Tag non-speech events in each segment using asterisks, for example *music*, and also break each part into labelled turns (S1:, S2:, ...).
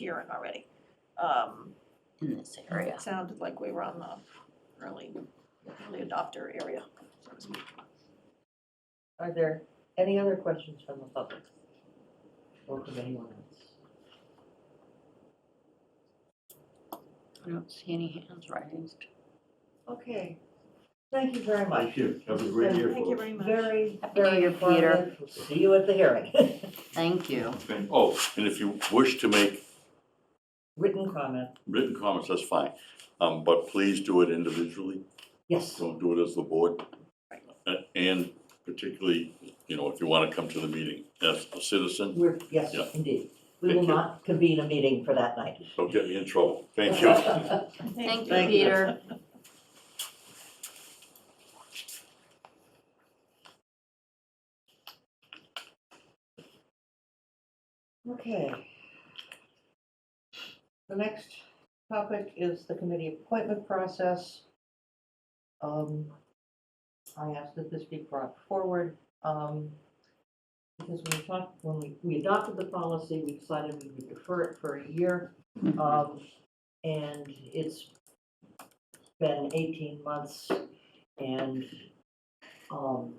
S1: hearing already, um,
S2: in this area.
S1: it sounded like we were on the early, early adopter area, so to speak.
S3: Are there any other questions from the public? Or from anyone else?
S2: I don't see any hands raised.
S3: Okay, thank you very much.
S4: Thank you, have a great year
S1: Thank you
S4: for us.
S1: very much.
S3: Very,
S2: Happy New
S3: very
S2: Year, Peter.
S3: informative. We'll See you at the hearing. *laughs*
S2: Thank you.
S4: Okay. Oh, and if you wish to make
S3: Written comment,
S4: written comments, that's fine, um, but please do it individually,
S3: yes,
S4: don't do it as the board. Uh, And particularly, you know, if you wanna come to the meeting as a citizen,
S3: we're, yes,
S4: Yeah.
S3: indeed. We
S4: Thank
S3: will
S4: you.
S3: not convene a meeting for that night.
S4: don't get me in trouble, thank
S1: *laughs*
S4: you.
S2: Thank you,
S3: Thank you.
S2: Peter.
S3: Okay. The next topic is the committee appointment process. Um, I asked that this be brought forward, um, because when we talked, when we, we adopted the policy, we decided we would defer it for a year. Um, and it's been eighteen months and, um,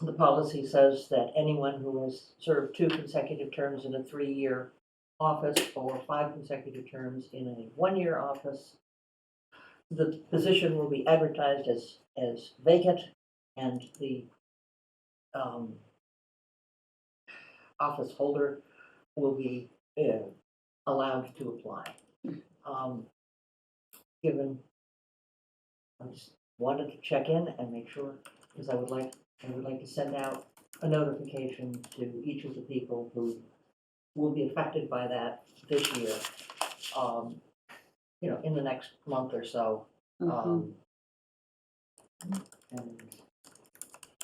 S3: the policy says that anyone who has served two consecutive terms in a three-year office or five consecutive terms in a one-year office, the position will be advertised as, as vacant and the, um, office holder will be, uh, allowed to apply. Um, given, I just wanted to check in and make sure, because I would like I would like to send out a notification to each of the people who will be affected by that this year. um, You know, in the next month or so.
S2: Mhm.
S3: um, And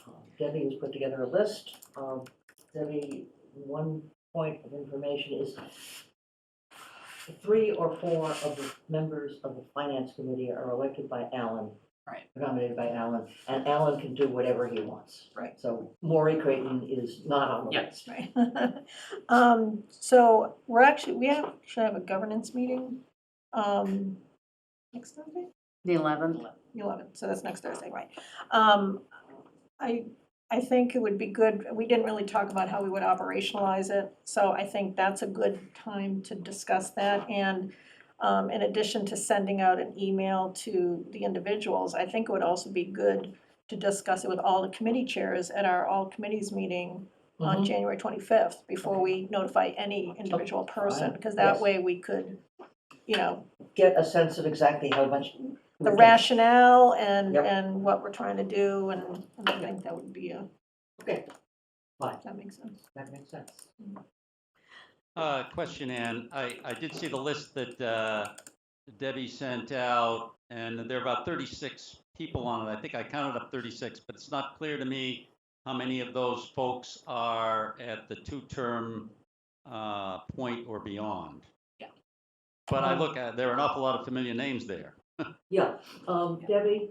S3: um, Debbie has put together a list. Um, Debbie, one point of information is three or four of the members of the finance committee are elected by Alan.
S2: Right.
S3: Nominated by Alan, and Alan can do whatever he wants.
S1: Right.
S3: So Maury Creighton is not on the
S2: Yeah.
S3: list.
S1: Right. *laughs* Um, so we're actually, we have, should have a governance meeting, um, next Thursday?
S2: The eleventh.
S1: the eleventh, so that's next Thursday, right. Um, I, I think it would be good, we didn't really talk about how we would operationalize it, so I think that's a good time to discuss that. And um, in addition to sending out an email to the individuals, I think it would also be good to discuss it with all the committee chairs at our all committees meeting on
S3: Mhm.
S1: January twenty-fifth, before we notify any individual person, because that
S3: Yes.
S1: way we could, you know,
S3: Get a sense of exactly how much.
S1: the rationale and,
S3: Yep.
S1: and what we're trying to do, and and I think that would be a,
S3: Okay, fine,
S1: that makes sense.
S3: that makes sense.
S5: Uh, question, Ann. I, I did see the list that, uh, Debbie sent out, and there are about thirty-six people on it. I think I counted up thirty-six, but it's not clear to me how many of those folks are at the two-term, uh, point or beyond.
S2: Yeah.
S5: But I look at, there are an awful lot of familiar names there.
S3: Yeah, um, Debbie,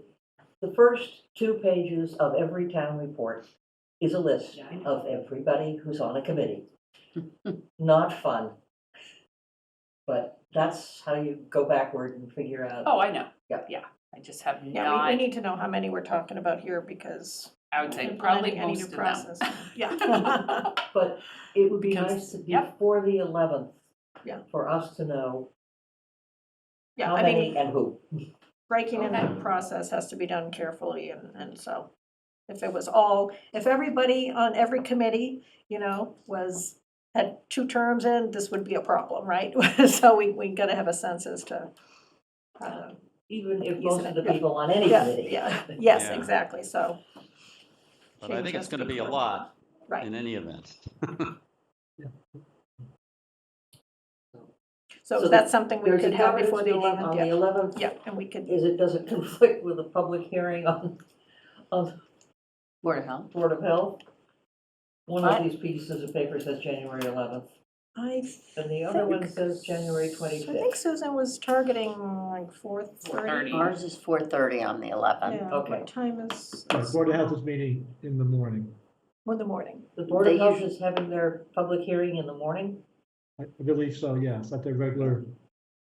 S3: the first two pages of every town report is a list of everybody who's on
S1: *laughs*
S3: a committee. Not fun. But that's how you go backward and figure out,
S6: Oh, I know.
S3: Yeah.
S6: Yeah, I just have
S1: Yeah,
S6: not,
S1: we, we need to know how many we're talking about here, because.
S6: I would say
S1: implementing
S6: probably
S1: any
S6: most
S1: new
S6: of them.
S1: process.
S6: *laughs*
S1: Yeah. *laughs*
S3: but it would be
S6: Becomes-
S3: nice to-
S6: yep.
S3: before the eleventh.
S1: Yeah.
S3: For us to know
S1: Yeah,
S3: how
S1: I mean,
S3: many and who.
S1: breaking in that
S6: Okay.
S1: process has to be done carefully, and, and so if it was all, if everybody on every committee, you know, was, had two terms in, this would be a problem, right? *laughs* So we, we gotta have a sense as to, uh,
S3: Even if
S1: Easy
S3: most of the
S1: enough.
S3: people on any
S1: Yeah,
S3: committee.
S1: yeah, yes,
S5: Yeah.
S1: exactly, so,
S5: But I
S1: Change
S5: think
S1: has
S5: it's
S1: to
S5: gonna
S1: be
S5: be a
S1: coordinated.
S5: lot
S1: right.
S5: in any event.
S1: So
S3: So
S1: is that something we
S3: There's a
S1: could have before
S3: governance
S1: the
S3: meeting
S1: eleventh?
S3: on the eleventh.
S1: Yeah, and we could,
S3: Is it, does it *laughs* conflict with a public hearing on, on
S2: Board of Health.
S3: Board of Health? One
S2: What?
S3: of these pieces of paper says January eleventh,
S1: I
S3: and the other one
S1: think-
S3: says January
S1: I think
S3: twenty-fifth.
S1: Susan was targeting like four thirty.
S6: 4:30.
S2: Ours is four thirty on the eleventh.
S1: Yeah,
S3: Okay.
S1: what time is,
S7: Our Board of Health is meeting in the morning.
S1: in the morning?
S3: The Board of
S2: They
S3: Health
S2: usually-
S3: is having their public hearing in the morning?
S7: I believe so, yes, at their regular